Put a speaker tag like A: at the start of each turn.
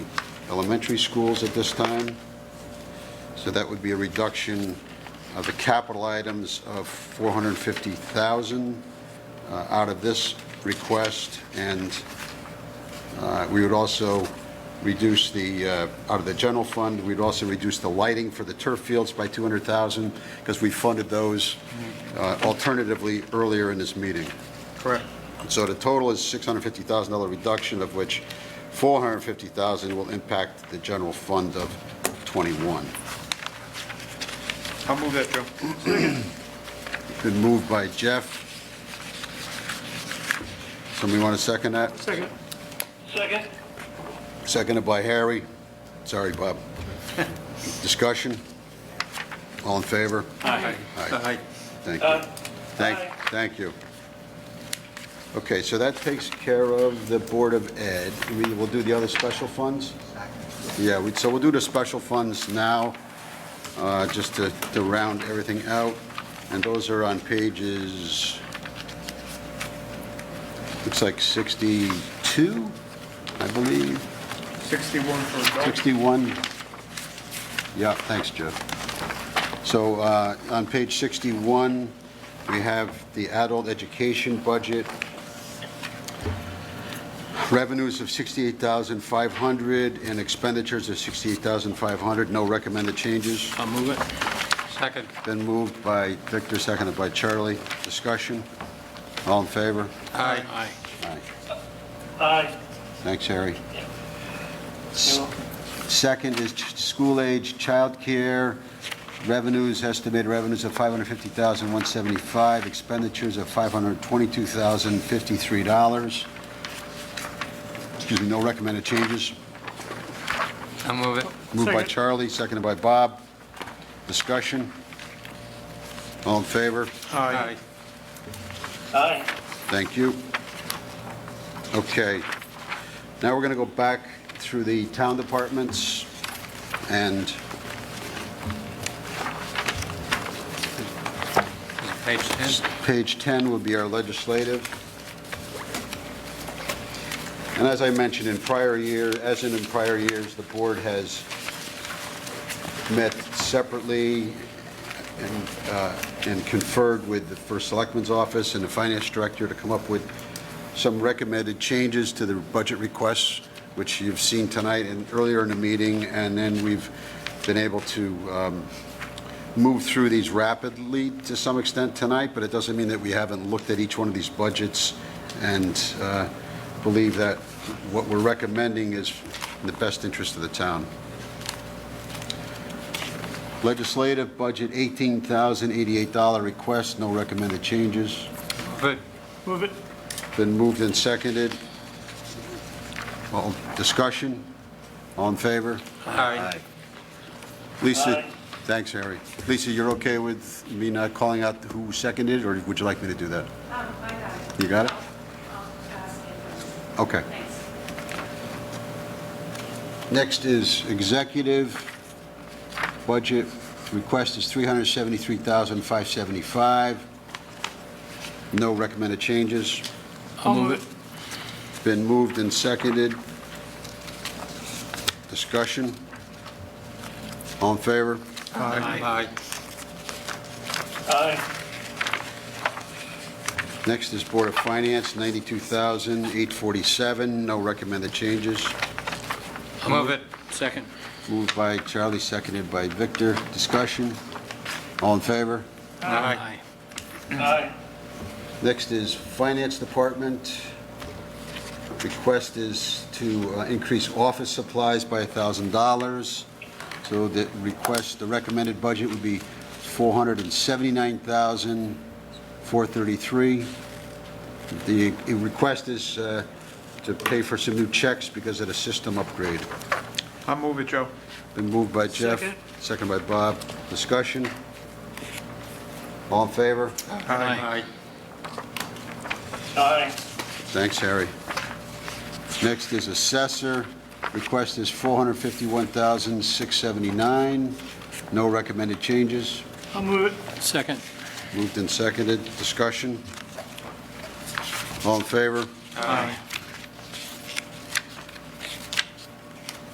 A: elementary schools at this time. So that would be a reduction of the capital items of 450,000 uh, out of this request, and uh, we would also reduce the, uh, out of the general fund, we'd also reduce the lighting for the turf fields by 200,000, because we funded those uh, alternatively earlier in this meeting.
B: Correct.
A: So the total is $650,000 reduction, of which $450,000 will impact the general fund of 21.
B: I'll move that, Joe.
A: Been moved by Jeff. Somebody want to second that?
B: Second.
C: Second.
A: Seconded by Harry. Sorry, Bob. Discussion? All in favor?
B: Aye.
A: Aye. Thank you.
C: Aye.
A: Thank,
C: Aye.
A: thank you. Okay, so that takes care of the Board of Ed. We will do the other special funds? Yeah, we- so we'll do the special funds now, uh, just to to round everything out. And those are on pages, looks like 62, I believe.
B: 61 for adults.
A: 61, yeah, thanks, Jeff. So uh, on page 61, we have the adult education budget. Revenues of 68500 and expenditures of 68500 no recommended changes.
B: I'll move it. Second.
A: Been moved by Victor, seconded by Charlie. Discussion? All in favor?
B: Aye. Aye.
A: Aye.
C: Aye.
A: Thanks, Harry.
C: You're welcome.
A: Second is ch- school-age childcare, revenues, estimated revenues of $550,175, expenditures of $522,053. Excuse me, no recommended changes.
B: I'll move it.
A: Moved by Charlie, seconded by Bob. Discussion? All in favor?
B: Aye.
C: Aye.
A: Thank you. Okay. Now we're going to go back through the town departments and
B: Page 10.
A: Page 10 would be our legislative. And as I mentioned in prior year, as in in prior years, the board has met separately and uh, and conferred with the First Selectman's Office and the Finance Director to come up with some recommended changes to the budget requests, which you've seen tonight and earlier in the meeting, and then we've been able to um, move through these rapidly to some extent tonight, but it doesn't mean that we haven't looked at each one of these budgets and uh, believe that what we're recommending is in the best interest of the town. Legislative budget, $18,088 request, no recommended changes.
B: Good.
C: Move it.
A: Been moved and seconded. All discussion? All in favor?
B: Aye.
A: Lisa,
C: Aye.
A: thanks, Harry. Lisa, you're okay with me not calling out who seconded, or would you like me to do that?
D: Um, I got it.
A: You got it?
D: I'll pass it.
A: Okay.
D: Thanks.
A: Next is executive budget. Request is $373,575. No recommended changes.
B: I'll move it.
A: Been moved and seconded. Discussion? All in favor?
B: Aye.
C: Aye.
A: Next is Board of Finance, $92,847. No recommended changes.
B: I'll move it. Second.
A: Moved by Charlie, seconded by Victor. Discussion? All in favor?
B: Aye.
C: Aye.
A: Next is Finance Department. Request is to uh, increase office supplies by $1,000. So the request, the recommended budget would be $479,433. The request is uh, to pay for some new checks because of the system upgrade.
B: I'll move it, Joe.
A: Been moved by Jeff.
C: Second.
A: Second by Bob. Discussion? All in favor?
B: Aye.
C: Aye.
A: Thanks, Harry. Next is assessor. Request is 451679 No recommended changes.
C: I'll move it.
B: Second.
A: Moved and seconded. Discussion? All in favor?
B: Aye.